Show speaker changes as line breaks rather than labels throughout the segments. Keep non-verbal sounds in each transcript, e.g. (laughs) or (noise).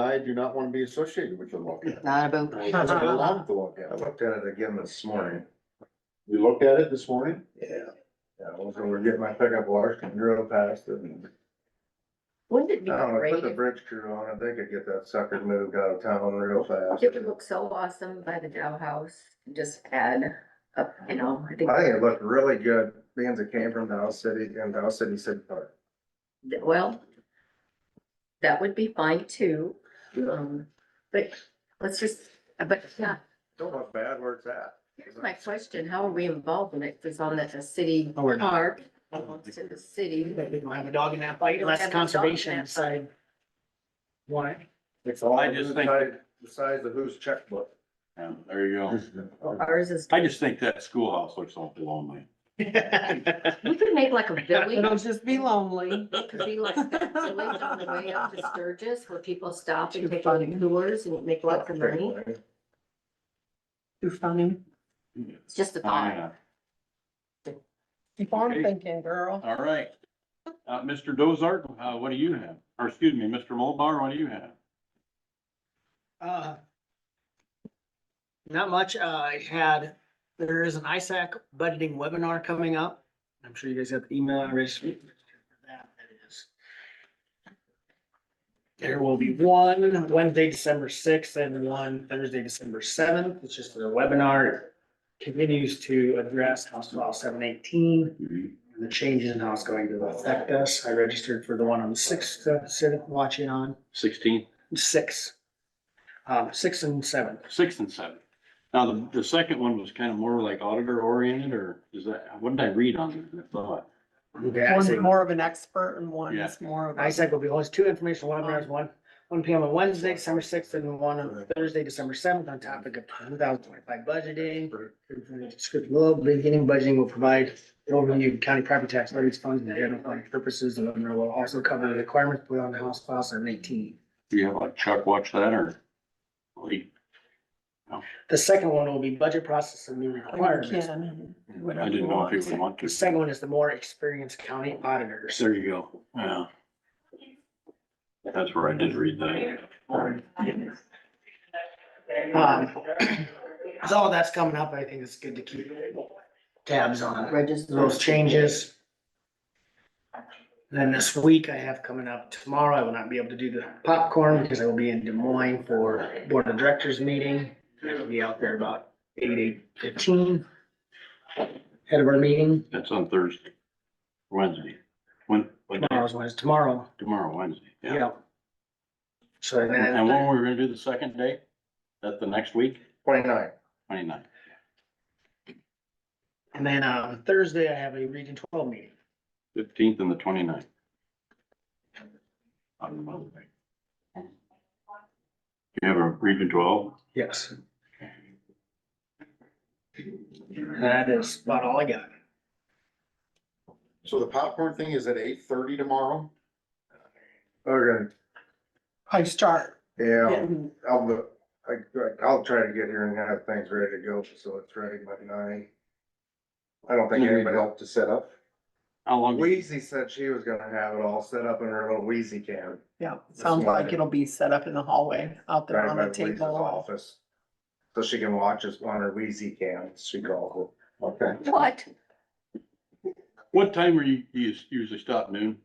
I do not want to be associated with the lockout.
(laughs)
Not about,
I love the lockout.
looked at it again this morning.
We looked at it this morning.
Yeah. Yeah, I was gonna get my pickup washed and drove past it and,
Wouldn't it
Oh, I
be
don't know,
great
put the
if
bridge crew on it, they could get that sucker moved out of town real fast.
it would look so awesome by the Dow House, just add up, you know, I think.
I think it looked really good, being it came from Dow City and Dow City City Park.
th- Well, that would be fine too, um, but let's just, but yeah,
Don't look bad where it's at.
here's my question, how are we involved in it? If it's on the, the city
Oh, we're not.
park, it's in the city.
We don't have a dog in that fight
We don't
unless
have a dog in
conservation
that
decide. Why?
It's all
I just think-
inside- the size of whose checkbook.
Yeah, there you go.
Oh.
Ours is,
I just think that schoolhouse looks awful lonely.
(laughs)
we could make
(laughs)
like a village,
it'll just be lonely.
it could be like that village on the way
(laughs)
up to Sturgis where people stop and take on tours and make lots of money.
Too funny.
It's just a thought.
Yeah.
Keep on
Okay.
thinking, girl.
All right. Uh, Mr. Dozart, uh, what do you have? Or excuse me, Mr. Mulbar, what do you have?
Uh, Not much. Uh, I had, there is an ISAC budgeting webinar coming up. I'm sure you guys got the email already. That is. There will be one Wednesday, December sixth and one Thursday, December seventh. It's just a webinar. Continues to address House File seven eighteen. the changes and how it's going to affect us. I registered for the one on the sixth, uh, sit- watching on
Sixteen.
six. Um, six and seven.
Six and seven. Now, the, the second one was kind of more like auditor oriented or is that, what did I read on it? I thought,
One's more of an expert and one's more of
I
a.
said will be host two informational webinars, one, one P M on Wednesday, December sixth, and one on Thursday, December seventh, on topic of two thousand twenty-five budgeting. Script below, beginning budgeting will provide an overview of county property tax levies funds and general fund purposes. The webinar will also cover the requirements put on the House File seven eighteen.
do you have like Chuck watch that or? Like,
The second one will be budget process and new requirements.
Ken,
I
whatever
didn't
you
know if
want.
you would want
The
to.
second one is the more experienced county auditors.
There you go. Yeah. That's where I did read that.
Um, So all that's coming up, I think it's good to keep tabs on
Register.
those changes. Then this week I have coming up tomorrow, I will not be able to do the popcorn because I will be in Des Moines for Board of Directors meeting. I'll be out there about eight, eight fifteen. Head of our meeting,
That's on Thursday, Wednesday, when, when,
tomorrow's Wednesday, tomorrow,
tomorrow, Wednesday, yeah.
yeah. So
And
then,
when we're gonna do the second day? That the next week,
Twenty-nine.
twenty-nine?
and then on Thursday I have a Region Twelve meeting.
Fifteenth and the twenty-ninth. On Monday. You have a region twelve?
Yes. That is about all I got.
So the popcorn thing is at eight thirty tomorrow.
Okay,
I start
yeah,
getting,
I'll, look- I, I'll try to get here and have things ready to go, so it's ready by nine. I don't think
You need
anybody else.
help to set up.
How long?
Wheezy said she was gonna have it all set up in her little wheezy can.
yeah, sounds like it'll be set up in the hallway out there
right
on
by
the
Lisa's
table.
office, So she can watch us on her wheezy can, she called
Okay.
What?
What time are you, you usually stop noon?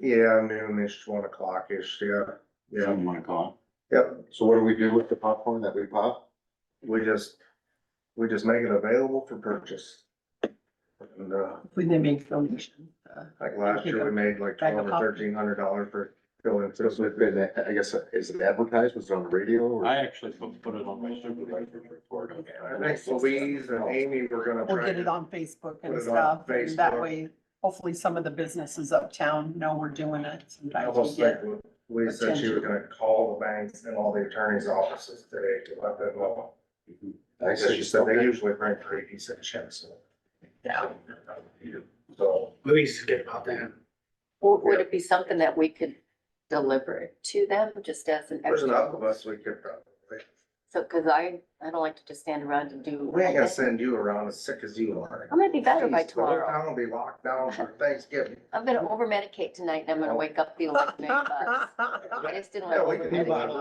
it. Yeah, noonish, one o'clock-ish, yeah, yeah,
Seven o'clock.
yep,
So what do we do with the popcorn that we pop?
we just, we just make it available for purchase. And, uh,
When they make donations. uh,
like last year, we made like
Bag of
twelve or
pop.
thirteen hundred dollars for filling.
So it's been, I guess, is it advertised? Was it on the radio or?
I actually put put it on my supervisor's report.
I think Louise and Amy were gonna
We'll
try
get it
to,
on Facebook
Put it on
and stuff, and that
Facebook.
way, hopefully some of the businesses uptown know we're doing it.
I
Sometimes we
almost
get
think Louise said she was gonna call the banks and all the attorney's offices today to let them know.
I
Because she
see.
said they usually bring three decent chips.
Yeah.
So,
Louise is good about that.
Would, would it be something that we could deliver it to them just as an
there's enough of
extra?
us, we could probably,
So, cause I, I don't like to just stand around and do.
we ain't gonna send you around as sick as you are.
I'm gonna be better by
Jeez, the whole
tomorrow.
Town will be locked down for Thanksgiving.
(laughs)
I'm gonna over medicate tonight and I'm gonna wake up feeling like a big bug. I just didn't like
Yeah, we
over
can do
medicate.
that.